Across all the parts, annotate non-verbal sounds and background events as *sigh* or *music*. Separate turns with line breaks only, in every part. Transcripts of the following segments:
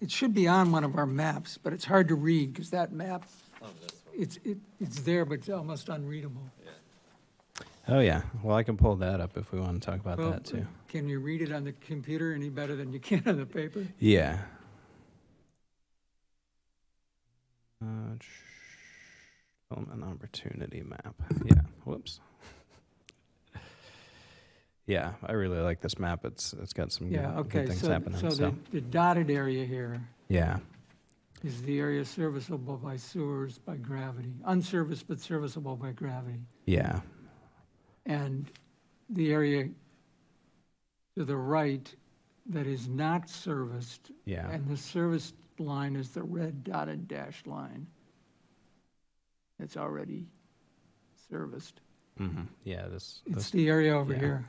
it should be on one of our maps, but it's hard to read because that map,
Oh, this one,
it's, it, it's there, but it's almost unreadable.
yeah.
Oh yeah. Well, I can pull that up if we want to talk about
Well,
that too.
Can you read it on the computer any better than you can on the
Mm,
paper?
Yeah. Uh, sh- film and opportunity map. Yeah. Whoops. *laughs* yeah, I really like this map. It's it's got some good,
Yeah,
good
okay,
things
so,
happening.
so the the dotted area here
yeah,
is the area serviceable by sewers by gravity, unserviced but serviceable by gravity.
yeah,
And the area to the right that is not serviced,
yeah.
and the serviced line is the red dotted dashed line. It's already serviced.
hmm Yeah, this,
It's
this
the area over
yeah.
here.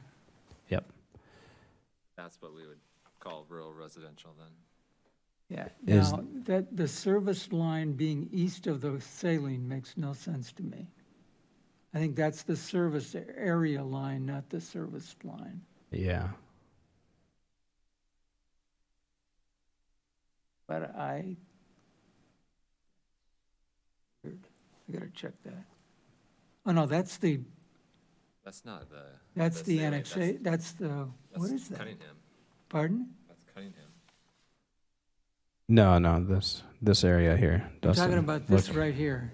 That's what we would call rural residential then.
Yeah.
Is-
Now, that, the service line being east of the saline makes no sense to me. I think that's the service area line, not the service line.
yeah.
But I, I gotta check that. Oh, no, that's the,
That's not the.
that's the
area-
annexa, that's the,
that's-
what
that's
is that?
Cunningham,
Pardon?
that's Cunningham.
No, no, this this area here.
I'm
Dustin,
talking about this
look-
right here.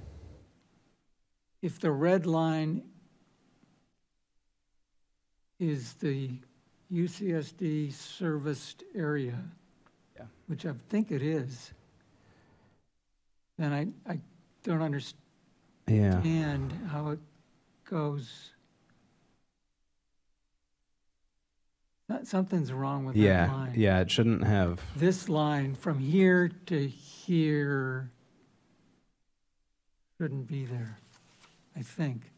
If the red line is the UCSD serviced area,
Yeah.
which I think it is, then I, I don't
Yeah.
understand how it goes. That- Something's wrong with that
Yeah,
line
yeah, it shouldn't have.
this line from here to here shouldn't be there, I think.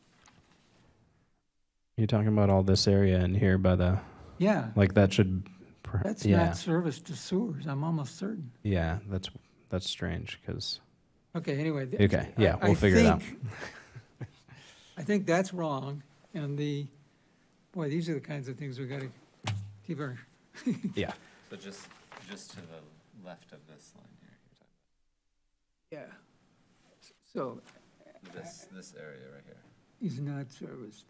You're talking about all this area in here by the
Yeah,
like that should. per-
that's
yeah,
not service to sewers, I'm almost certain.
yeah, that's that's strange because
Okay, anyway. th-
okay,
I-
yeah,
I
we'll figure it out.
think- I think that's wrong, and the, boy, these are the kinds of things we gotta keep our,
Yeah,
So just, just to the left of this line here, you're
yeah. So,
talking, this, this area right here.
is not serviced.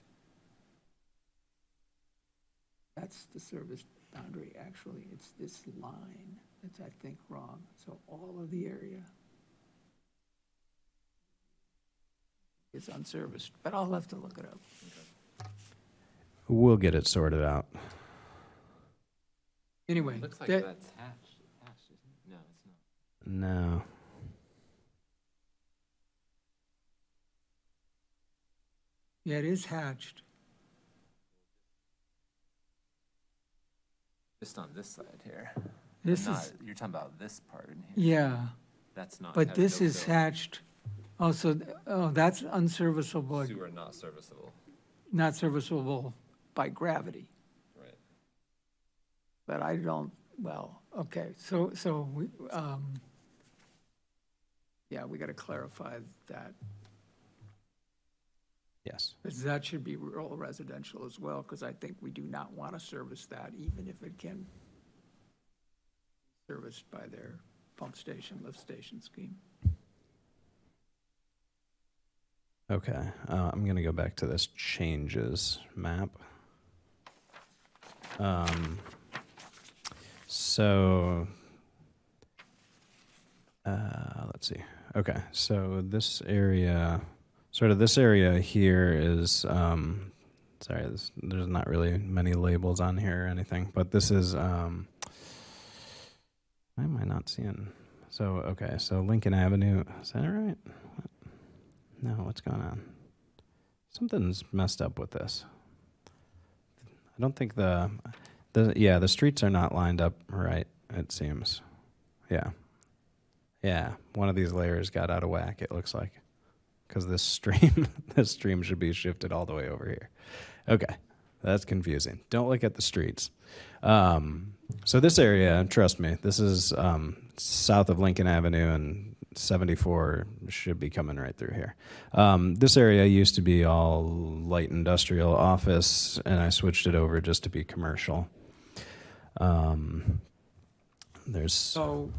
That's the service boundary, actually, it's this line that's, I think, wrong, so all of the area is unserviced, but I'll have to look it up.
we'll get it sorted out.
Anyway,
It looks like
that,
that's hatched, hatched, isn't it? No, it's not.
No,
yeah, it is hatched,
Just on this side here.
this
Not-
is,
You're talking about this part in here.
yeah,
That's not.
but
had
this
no
is
fill.
hatched, also, oh, that's unserviceable,
Sewer not serviceable,
not serviceable by gravity.
right?
But I don't, well, okay, so, so, we um, yeah, we got to clarify that,
yes,
'cause that should be rural residential as well, because I think we do not want to service that, even if it can be serviced by their pump station, lift station scheme.
okay. Uh, I'm gonna go back to this changes map. Um, so uh, let's see. Okay, so this area, sort of this area here is. Um, sorry, this, there's not really many labels on here or anything, but this is. Um, why am I not seeing? So okay, so Lincoln Avenue. Is that right? What? No, what's going on? Something's messed up with this. I don't think the, the yeah the streets are not lined up right. It seems, yeah, yeah. One of these layers got out of whack. It looks like, because this stream *laughs* this stream should be shifted all the way over here. Okay, that's confusing. Don't look at the streets. Um, so this area, trust me, this is um, south of Lincoln Avenue and 74 should be coming right through here. Um, this area used to be all light industrial office, and I switched it over just to be commercial. Um, there's
So